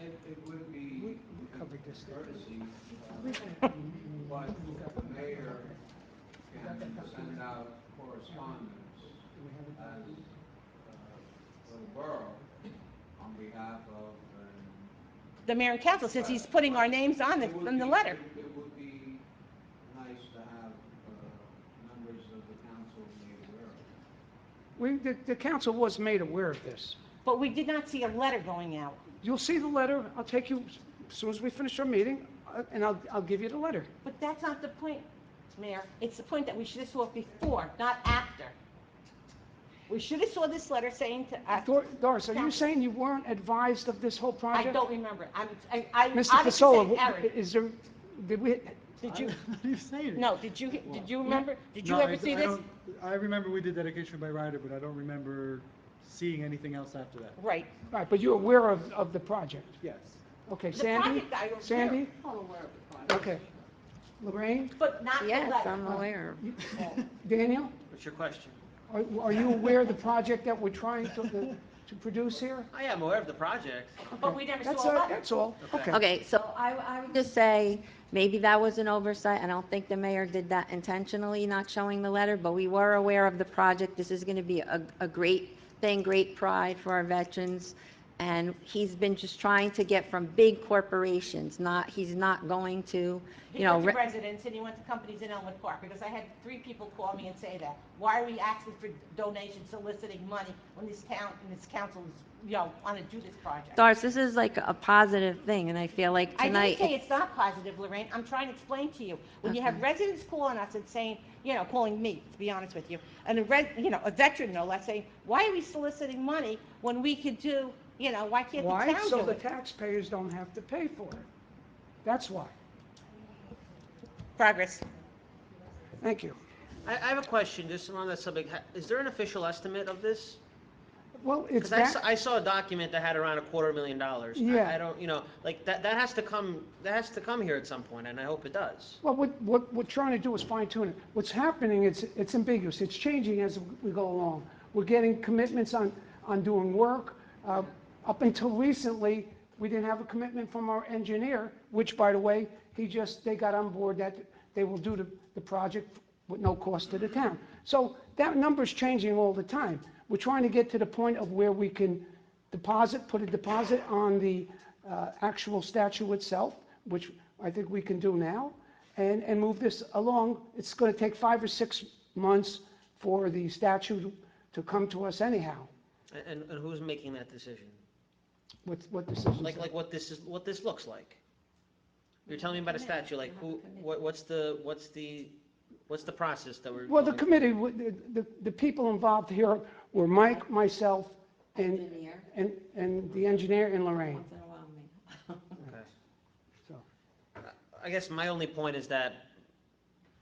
it would be we covered this. courtesy, uh, We've- but the mayor can send out correspondence as, uh, for the borough on behalf of, um, the mayor and council, since he's putting our names on the, It would on the be- letter. It it would be nice to have uh, members of the council be aware of. it. We, the, the council was made aware of this. But we did not see a letter going out. You'll see the letter, I'll take you, as soon as we finish our meeting, uh, and I'll, I'll give you the letter. But that's not the point, Mayor. It's the point that we should have saw it before, not after. We should have saw this letter saying to us, Dor- Doris, are you Uh, Council. saying you weren't advised of this whole project? I don't remember. I'm, I, I Mr. obviously Pasola, said wh- Eric. is there, did we, uh, Did you, you say it? no, did you, did you remember, did you No, I- ever see I this? don't- I remember we did dedication by rider, but I don't remember seeing anything else after that. Right. right, but you're aware of, of the project? Yes. Okay, The Sandy? project I was there. Sandy? Okay. Lorraine? But not the letter. Yes, I'm aware. Daniel? What's your question? Are, are you aware of the project that we're trying to, to produce here? I am Oh, aware of the project. But we never That's, saw a all- letter. that's all, okay. Okay, so I, I would just say, maybe that was an oversight. I don't think the mayor did that intentionally, not showing the letter, but we were aware of the project. This is going to be a, a great thing, great pride for our veterans. And he's been just trying to get from big corporations, not, he's not going to, He you know, went to re- residents and he went to companies in Elmwood Park, because I had three people call me and say that. Why are we asking for donations, soliciting money when this town, and this council is, you know, wanna do this project? Doris, this is like a positive thing, and I feel like I didn't tonight, say it's not positive, Lorraine, I'm trying to explain to you. When you have residents calling us and saying, you know, calling me, to be honest with you, and a res, you know, a veteran, no less, saying, why are we soliciting money when we could do, you know, why can't the Why? town So do the it? taxpayers don't have to pay for it. That's why. Progress. Thank you. I, I have a question, just on that subject. Ha- Is there an official estimate of this? Well, it's Because I that. saw, I saw a document that had around a quarter million dollars. I- Yeah. I don't, you know, like, that, that has to come, that has to come here at some point, and I hope it does. Well, what, what we're trying to do is fine tune it. What's happening, it's, it's ambiguous, it's changing as we go along. We're getting commitments on, on doing work. Uh, Up until recently, we didn't have a commitment from our engineer, which, by the way, he just, they got on board that they will do the, the project with no cost to the town. So that number's changing all the time. We're trying to get to the point of where we can deposit, put a deposit on the uh, actual statue itself, which I think we can do now, and, and move this along. It's going to take five or six months for the statue to come to us anyhow, A- And, and who's making that decision? with what decisions. Like, like what this is, what this looks like? You're telling me about a statue, like, who, what, what's the, what's the, what's the process that we're? Well, the going- committee, would- the, the- the people involved here were Mike, myself, and, Engineer. and, and the engineer and Lorraine. Once in a while, me. Okay. So- I guess my only point is that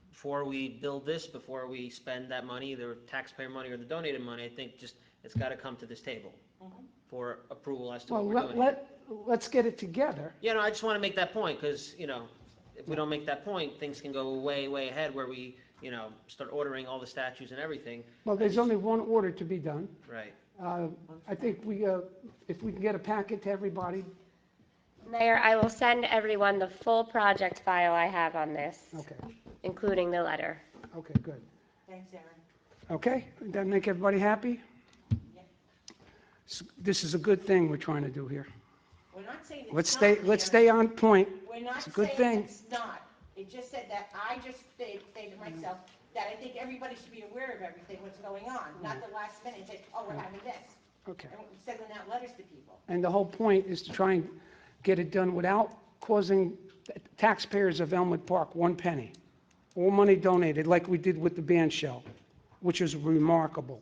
before we build this, before we spend that money, either taxpayer money or the donated money, I think just, it's got to come to this table for approval as to what Well, we're let, doing. let, let's get it together. Yeah, no, I just want to make that point, because, you know, if we don't make that point, things can go way, way ahead where we, you know, start ordering all the statues and everything, Well, there's only one order to be done. right? Uh, I think we, uh, if we can get a packet to everybody, Mayor, I will send everyone the full project file I have on this, okay, including the letter. okay, good. Thanks, Erin. Okay, that make everybody happy? S- This is a good thing we're trying to do here. We're not saying it's Let's not, stay, let's Erin. stay on point. We're not It's a good saying thing. it's not. It just said that I just sta- stated myself that I think everybody should be aware of everything, what's going on, not the last minute, say, oh, we're having this. Okay. And we're sending out letters to people. And the whole point is to try and get it done without causing taxpayers of Elmwood Park one penny. All money donated, like we did with the band shell, which is remarkable.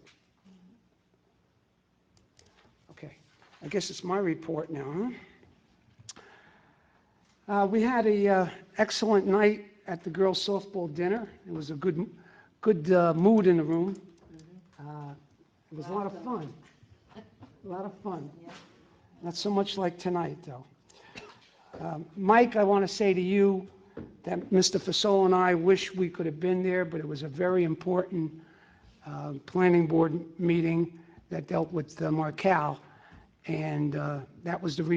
Okay, I guess it's my report now, huh? Uh, We had a uh, excellent night at the girls' softball dinner. It was a good, good uh, mood in the room. Uh, It was a lot of fun. A lot of fun. Not so much like tonight, though. Um, Mike, I want to say to you that Mr. Fasol and I wish we could have been there, but it was a very important uh, planning board meeting that dealt with uh, Markel, and uh, that was the reason